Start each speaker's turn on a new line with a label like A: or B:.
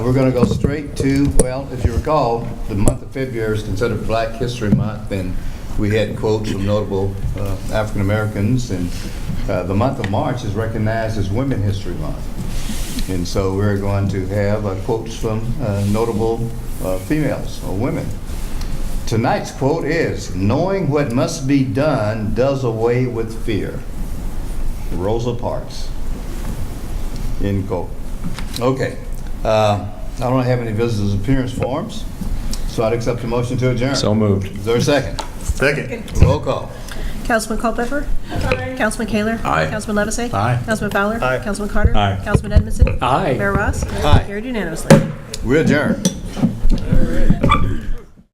A: We're going to go straight to, well, if you recall, the month of February is considered Black History Month, and we had quotes from notable uh, African-Americans, and uh, the month of March is recognized as Women History Month. And so we're going to have uh, quotes from uh, notable uh, females or women. Tonight's quote is, "Knowing what must be done does away with fear." Rosa Parks. End quote. Okay. Uh, I don't have any visitors' appearance forms, so I'd accept a motion to adjourn.
B: So moved.
A: Is there a second?
C: Second.
A: Roll call.
D: Councilman Culpepper? Councilman Kaler?
B: Aye.
D: Councilman Levesey?
B: Aye.
D: Councilman Fowler?
C: Aye.
D: Councilman Carter?
B: Aye.
D: Councilman Edmondson?
B: Aye.
D: Mayor Ross?
A: Aye.
D: Carried unanimously.
A: We adjourn.